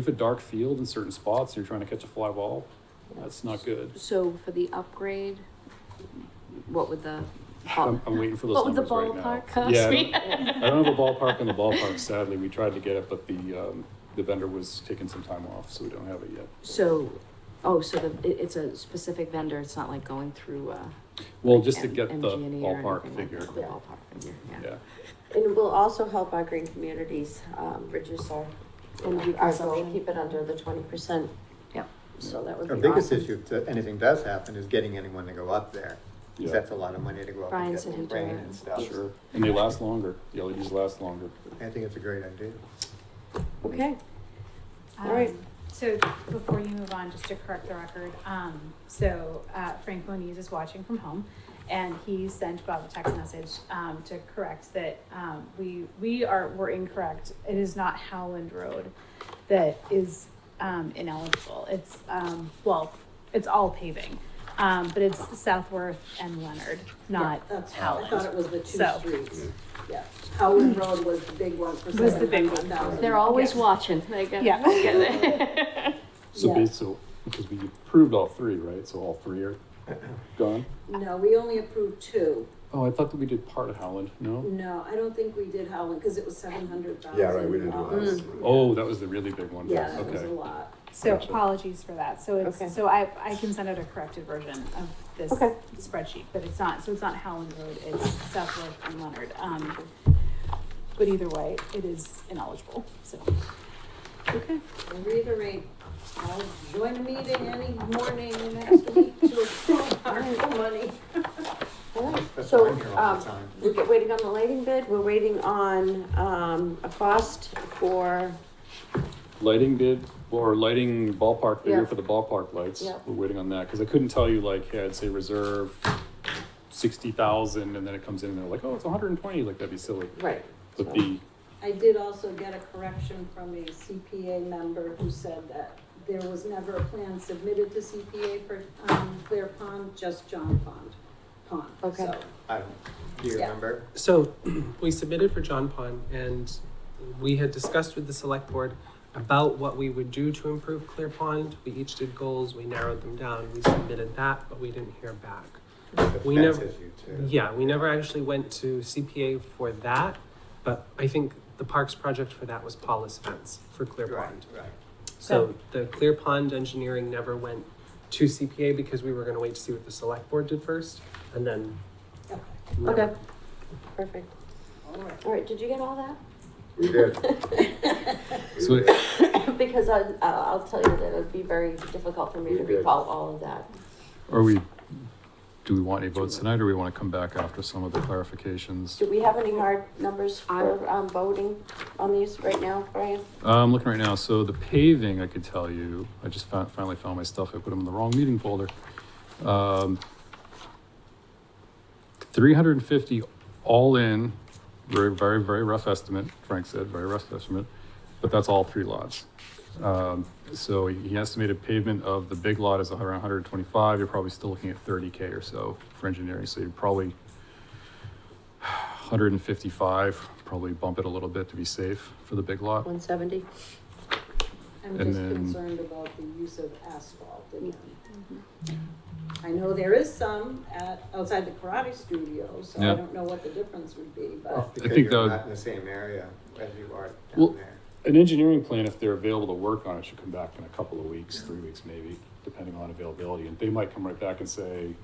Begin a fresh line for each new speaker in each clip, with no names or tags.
If a dark field in certain spots and you're trying to catch a fly ball, that's not good.
So for the upgrade, what would the,
I'm, I'm waiting for those
what would the
numbers right now.
ballpark cost
Yeah, I
me?
don't- I don't have a ballpark in the ballpark, sadly. We tried to get it, but the, um, the vendor was taking some time off, so we don't have it yet.
So, oh, so the, it, it's a specific vendor, it's not like going through, uh.
Well,
like
just to
M-
get the
MG&E or
ballpark
anything
figure.
like that. The ballpark figure, yeah.
Yeah,
And it will also help our green communities, um, reduce our, and our goal, keep it under the twenty percent.
Yep.
So that would be
Our
awesome.
biggest issue, if th- anything does happen, is getting anyone to go up there. 'cause
Yeah.
that's a lot of money to go up
Brian
and
said
get
he'd
rain
do it.
and stuff.
sure. And they last longer. The LEDs last longer.
I think it's a great idea.
Okay, All
Um,
right.
So before you move on, just to correct the record, um, so, uh, Frank Moniz is watching from home. And he sent Bob a text message, um, to correct that, um, we, we are, were incorrect. It is not Howland Road that is, um, ineligible. It's, um, well, it's all paving. Um, but it's Southworth and Leonard, not
That's how I thought it
Howland.
was the two
So-
streets. Yeah, Howland Road was the big one for
Was the big one.
700,000.
They're always watching, uh, they get,
Yeah.
get it.
So
Yeah.
bas so, because we approved all three, right? So all three are gone?
No, we only approved two.
Oh, I thought that we did part of Howland, no?
No, I don't think we did Howland, because it was seven hundred thousand. Mm,
Yeah, right, we didn't do that.
Oh, that was the really big one.
Yeah, that was a
Okay.
lot.
So
Gotcha.
apologies for that. So
Okay.
it's, so I, I can send out a corrected version of this
Okay.
spreadsheet, but it's not, so it's not Howland Road, it's Southwood and Leonard. Um, but either way, it is ineligible, so.
okay.
And reiterate, I'll join a meeting any morning next week to approve our money.
All right.
That's
So,
why I'm here all the
um,
time.
we're get- waiting on the lighting bid, we're waiting on, um, a cost for,
Lighting bid or lighting ballpark figure
Yeah.
for the ballpark lights.
Yeah.
We're waiting on that because I couldn't tell you like, hey, I'd say reserve sixty thousand, and then it comes in and they're like, oh, it's one hundred and twenty. Like that'd be silly.
right.
But the
I did also get a correction from a CPA member who said that there was never a plan submitted to CPA for, um, Clear Pond, just John Pond, Pond.
Okay.
So,
I don't, do you
Yeah.
remember?
So we submitted for John Pond and we had discussed with the select board about what we would do to improve Clear Pond. We each did goals, we narrowed them down, we submitted that, but we didn't hear back.
The
We
fence
never-
issue too.
Yeah, we never actually went to CPA for that, but I think the parks project for that was Paula's fence for Clear
Right,
Pond.
right.
So the Clear Pond engineering never went to CPA because we were gonna wait to see what the select board did first and then.
okay.
never-
Okay. Perfect.
All right.
All right, did you get all that?
We did.
so
Because I, I'll I'll tell you that it'd be very difficult for me to
We did.
recall all of that.
are we? Do we want any votes tonight, or we want to come back after some of the clarifications?
Do we have any hard numbers for, um, voting on these right now, Brian?
Uh, I'm looking right now. So the paving, I could tell you. I just fin- finally found my stuff. I put them in the wrong meeting folder. Um, 350 all in. Very, very, very rough estimate. Frank said very rough estimate, but that's all three lots. Um, so he estimated pavement of the big lot is around 125. You're probably still looking at 30k or so for engineering. So you're probably 155. Probably bump it a little bit to be safe for the big lot.
One seventy?
I'm
And
just
then-
concerned about the use of asphalt again. I know there is some at, outside the karate studio, so
Yeah.
I don't know what the difference would be,
Uh,
but
Because
think
you're
that-
not in the same area as you are
Well-
down there.
An engineering plan, if they're available to work on it, should come back in a couple of weeks, three weeks maybe, depending on availability. And they might come right back and say,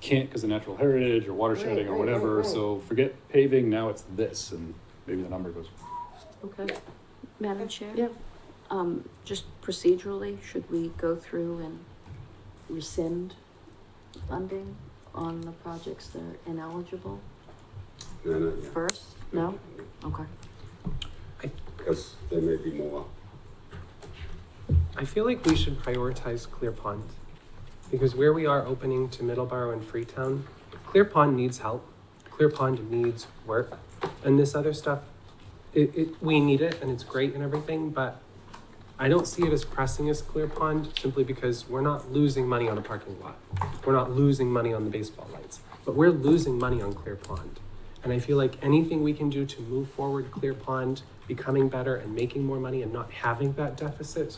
can't because of natural heritage or watershedding
Right,
or
right, right,
whatever,
right.
so forget paving, now it's this, and maybe the number goes.
Okay.
Madam Chair?
Yeah.
Um, just procedurally, should we go through and rescind funding on the projects that are ineligible
No, not yet.
first? No? Okay.
Because there may be more.
I feel like we should prioritize Clear Pond because where we are opening to Middleborough and Freetown, Clear Pond needs help. Clear Pond needs work, and this other stuff, it, it we need it and it's great and everything, but I don't see it as pressing as Clear Pond simply because we're not losing money on a parking lot. We're not losing money on the baseball lights, but we're losing money on Clear Pond. And I feel like anything we can do to move forward Clear Pond becoming better and making more money and not having that deficit so